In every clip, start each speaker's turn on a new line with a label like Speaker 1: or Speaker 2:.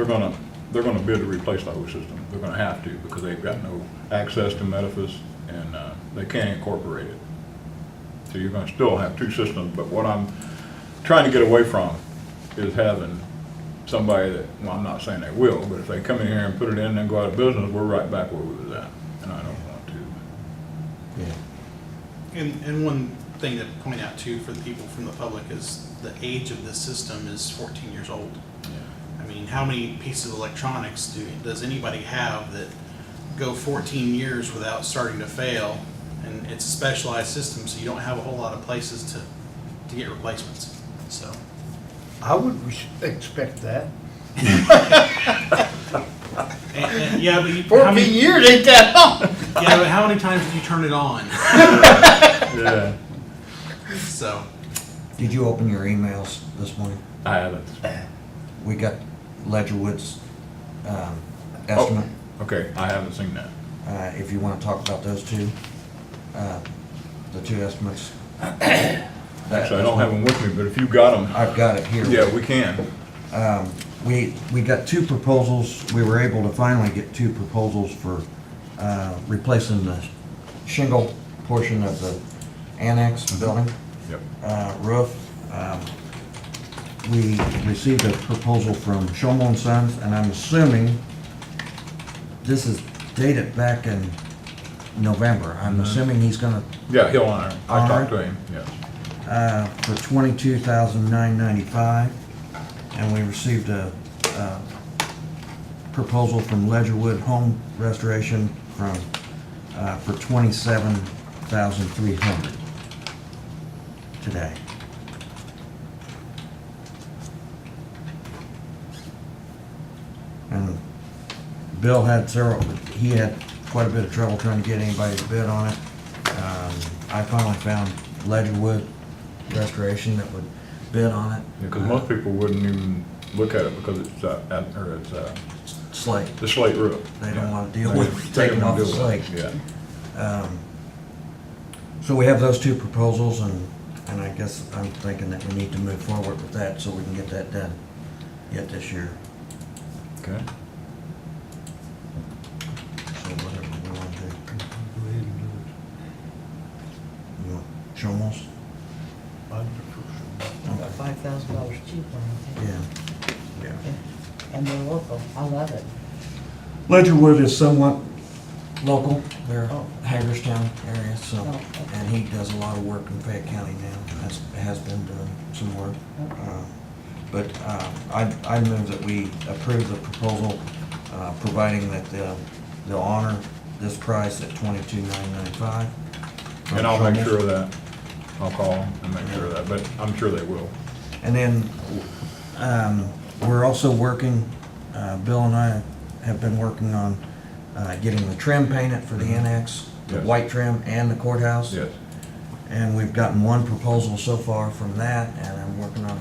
Speaker 1: They're gonna, they're gonna bid to replace the whole system. They're gonna have to because they've got no access to Metaphys and, uh, they can't incorporate it. So you're gonna still have two systems, but what I'm trying to get away from is having somebody that, well, I'm not saying they will, but if they come in here and put it in and then go out of business, we're right back where we was at, and I don't want to.
Speaker 2: Yeah.
Speaker 3: And, and one thing to point out too for the people from the public is the age of this system is fourteen years old. I mean, how many pieces of electronics do, does anybody have that go fourteen years without starting to fail? And it's a specialized system, so you don't have a whole lot of places to, to get replacements, so.
Speaker 4: I would res- expect that.
Speaker 3: And, and, yeah, but you. how many-
Speaker 4: Fourteen years ain't that long.
Speaker 3: Yeah, but how many times do you turn it on?
Speaker 1: Yeah,
Speaker 3: So,
Speaker 2: Did you open your emails this morning?
Speaker 1: I haven't.
Speaker 2: We got Ledgerwood's um,
Speaker 1: Oh.
Speaker 2: estimate.
Speaker 1: Okay, I haven't seen that.
Speaker 2: Uh, If you want to talk about those two, uh, the two estimates.
Speaker 1: Actually, I don't have them with me, but if you got them,
Speaker 2: I've got it here.
Speaker 1: yeah, we can.
Speaker 2: Um, We, we got two proposals, we were able to finally get two proposals for uh, replacing the shingle portion of the
Speaker 1: Mm-hmm.
Speaker 2: annex building.
Speaker 1: Yep.
Speaker 2: uh, roof. Um, We received a proposal from Shomel and Sons, and I'm assuming this is dated back in November. I'm assuming he's gonna,
Speaker 1: Yeah, he'll honor. it. I talked to
Speaker 2: Alright.
Speaker 1: him, yes.
Speaker 2: uh, for twenty-two thousand nine ninety-five. And we received a, uh, proposal from Ledgerwood Home Restoration from, uh, for twenty-seven thousand three hundred today. And Bill had several, he had quite a bit of trouble trying to get anybody to bid on it. Um, I finally found Ledgerwood Restoration that would bid on it.
Speaker 1: Because most people wouldn't even look at it because it's, uh, at- or it's, uh,
Speaker 2: Slate.
Speaker 1: the slate roof.
Speaker 2: They don't
Speaker 1: Yeah.
Speaker 2: wanna deal
Speaker 1: They-
Speaker 2: with
Speaker 1: they
Speaker 2: taking
Speaker 1: don't
Speaker 2: off the
Speaker 1: deal with it,
Speaker 2: slate.
Speaker 1: Yeah.
Speaker 2: Um, So we have those two proposals, and, and I guess I'm thinking that we need to move forward with that so we can get that done yet this year.
Speaker 1: Okay.
Speaker 2: So whatever we want to do. You want Shomel's?
Speaker 5: About five thousand dollars cheaper, I think.
Speaker 2: Yeah. Yeah.
Speaker 5: And they're local, I love it.
Speaker 2: Ledgerwood is somewhat local, they're
Speaker 5: Oh.
Speaker 2: Hagerstown area, so,
Speaker 5: Oh, okay.
Speaker 2: and he does a lot of work in Fayette County now, has, has been doing some work.
Speaker 5: Okay.
Speaker 2: Uh, But uh, I, I move that we approve the proposal, uh, providing that they'll, they'll honor this price at twenty-two nine ninety-five.
Speaker 1: And I'll make sure of that. I'll call them and make sure of that, but I'm sure they will.
Speaker 2: And then, um, we're also working, uh, Bill and I have been working on, uh, getting the trim painted for the annex, the
Speaker 1: Yes.
Speaker 2: white trim and the courthouse.
Speaker 1: Yes.
Speaker 2: And we've gotten one proposal so far from that, and I'm working on,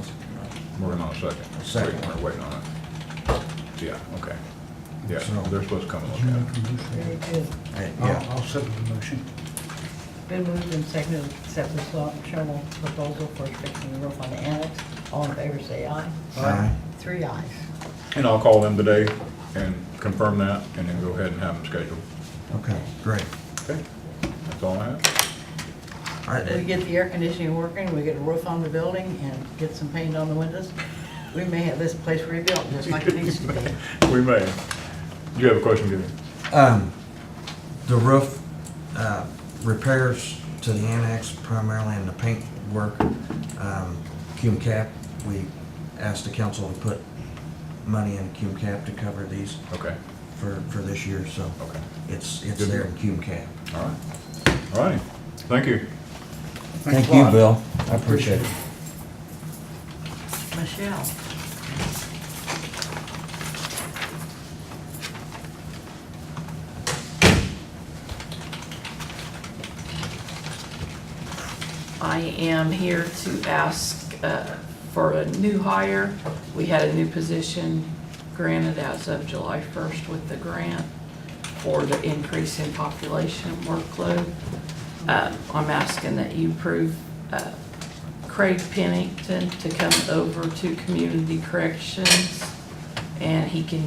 Speaker 1: Working on a second.
Speaker 2: A second.
Speaker 1: Waiting- We're waiting on it. Yeah, okay. Yeah,
Speaker 2: So-
Speaker 1: they're supposed to come and look at it.
Speaker 5: Very good.
Speaker 2: uh, yeah,
Speaker 4: I'll second the motion.
Speaker 5: Been moved and seconded, to accept the Salt and Shovel proposal for fixing the roof on the annex. All in favor, say aye.
Speaker 2: Aye.
Speaker 5: Three ayes.
Speaker 1: And I'll call them today and confirm that and then go ahead and have them scheduled.
Speaker 2: okay, great.
Speaker 1: Okay? That's all I have.
Speaker 2: All right,
Speaker 5: We get the air conditioning working, we get a roof on the building, and get some paint on the windows. We may have this place rebuilt, just like it needs to be.
Speaker 1: We may. Do you have a question, Gideon?
Speaker 2: Um, the roof, uh, repairs to the annex primarily and the paint work, um, cum cap, we asked the council to put money in cum cap to cover these
Speaker 1: Okay,
Speaker 2: for, for this year, so
Speaker 1: okay.
Speaker 2: it's, it's
Speaker 1: Good.
Speaker 2: there in cum cap.
Speaker 1: All right. All righty. Thank you.
Speaker 2: Thank you, Bill, I appreciate it.
Speaker 5: Michelle,
Speaker 6: I am here to ask uh, for a new hire. We had a new position granted as of July 1st with the grant for the increase in population workload. Uh, I'm asking that you approve uh, Craig Pennington to come over to Community Corrections and he can